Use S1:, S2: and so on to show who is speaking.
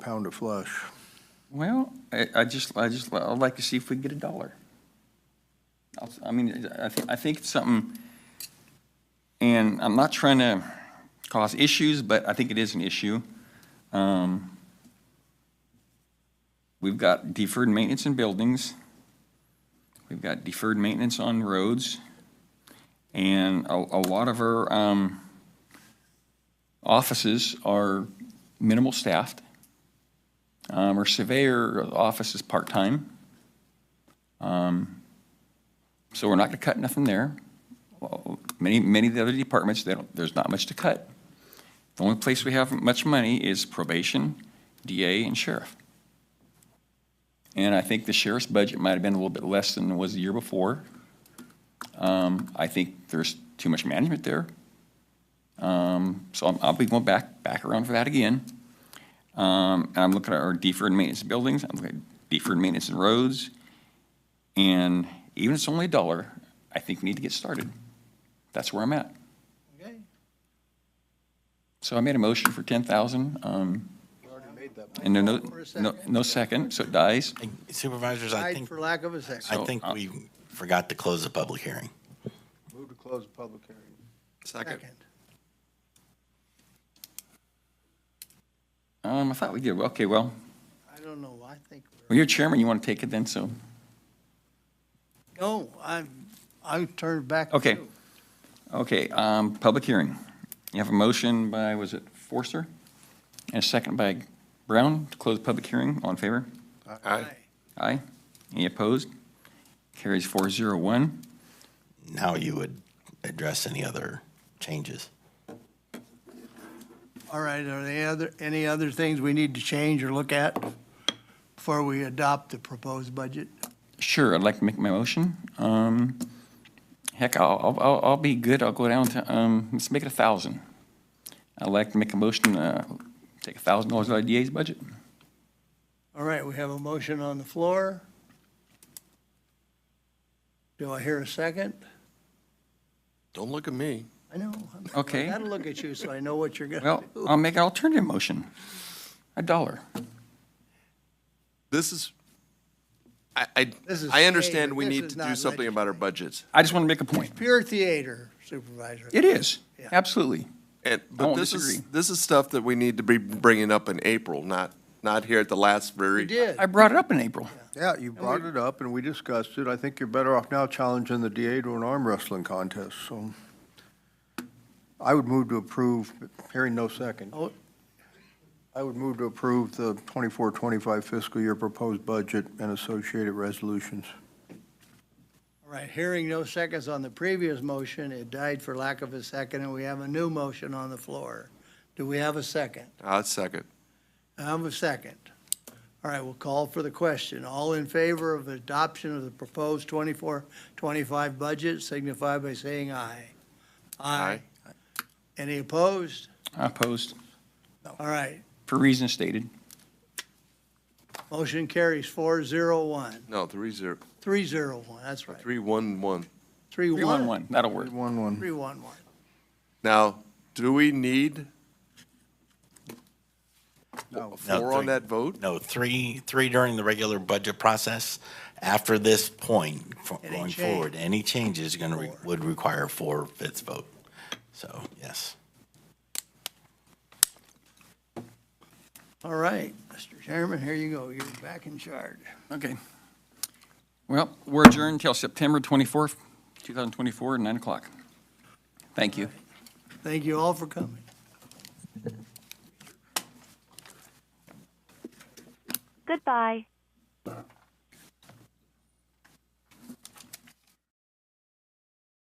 S1: pound of flush.
S2: Well, I, I just, I just, I'd like to see if we can get a dollar. I'll s- I mean, I, thi- I think it's something, and I'm not trying to cause issues, but I think it is an issue. Um, We've got deferred maintenance in buildings. We've got deferred maintenance on roads. And a, a lot of our, um, offices are minimal staffed. Um, Our surveyor office is part-time. Um, So we're not going to cut nothing there. Well, Many, many of the other departments, they don't, there's not much to cut. The only place we have much money is probation, DA, and sheriff. And I think the sheriff's budget might have been a little bit less than it was the year before. Um, I think there's too much management there. Um, So I'm- I'll be going back, back around for that again. Um, and I'm looking at our deferred maintenance of buildings, I'm looking at deferred maintenance and roads. And even if it's only a dollar, I think we need to get started. That's where I'm at.
S1: Okay,
S2: So I made a motion for ten thousand, um,
S1: we already made that.
S2: and no- no,
S1: For a
S2: no,
S1: second.
S2: no second, so it dies.
S3: Supervisors, I
S1: Died
S3: think,
S1: for lack of a second.
S3: I think we forgot to close the public hearing.
S1: Move to close the public hearing. Second.
S2: Um, I thought we did, Well, okay, well,
S1: I don't know, I think, we're-
S2: well, you're chairman, you want to take it then, so,
S1: no, I, I turned back to
S2: Okay.
S1: you.
S2: okay, um, public hearing. You have a motion by, was it Forster? And a second by Brown to close the public hearing, all in favor?
S1: Aye.
S2: Aye. Any opposed? Carries four zero one.
S3: Now you would address any other changes.
S1: All right, are there other, any other things we need to change or look at before we adopt the proposed budget?
S2: Sure, I'd like to make my motion. Um, heck, I'll, I'll- I'll, I'll be good. I'll go down to, um, let's make it a thousand. I'd like to make a motion, uh, take a thousand dollars out of DA's budget.
S1: All right, we have a motion on the floor. Do I hear a second?
S4: Don't look at me.
S1: I know.
S2: Okay.
S1: I gotta look at you so I know what you're gonna
S2: Well,
S1: do.
S2: I'll make an alternative motion. A dollar.
S4: This is, I, I,
S1: This is
S4: I understand we
S1: theater.
S4: need
S1: This
S4: to
S1: is
S4: do
S1: not
S4: something about our budgets.
S2: I just want to make a point.
S1: Pure theater, Supervisor.
S2: It is,
S1: Yeah.
S2: absolutely.
S4: And,
S2: I
S4: but
S2: won't
S4: this is,
S2: disagree.
S4: this is stuff that we need to be bringing up in April, not, not here at the last very.
S1: We did.
S2: I brought it up in April.
S5: Yeah, you brought it up and we discussed it. I think you're better off now challenging the DA to an arm wrestling contest, so. I would move to approve, hearing no second.
S1: Oh.
S5: I would move to approve the 24-25 fiscal year proposed budget and associated resolutions.
S1: All right, hearing no seconds on the previous motion, it died for lack of a second, and we have a new motion on the floor. Do we have a second?
S4: i Ah, second.
S1: I have a second. All right, we'll call for the question. All in favor of adoption of the proposed 24-25 budget signify by saying aye.
S4: Aye.
S1: Any opposed?
S2: I opposed,
S1: All right,
S2: for reasons stated.
S1: motion carries four zero one,
S4: No, three zero,
S1: three zero one, that's right.
S4: three one one.
S1: Three
S2: Three one one, that'll work.
S5: One, one.
S1: Three one one.
S4: Now, do we need four on
S3: three.
S4: that vote?
S3: No, three, three during the regular budget process. After this point, fo-
S1: Any
S3: going
S1: change.
S3: forward, any changes gonna, re-
S1: Four.
S3: would require four-fifths vote. So, yes.
S1: All right, Mr. Chairman, here you go, you're back in charge.
S2: Okay. Well, we're adjourned till September 24th, 2024, at 9 o'clock. Thank you.
S1: Thank you all for coming.
S6: Goodbye.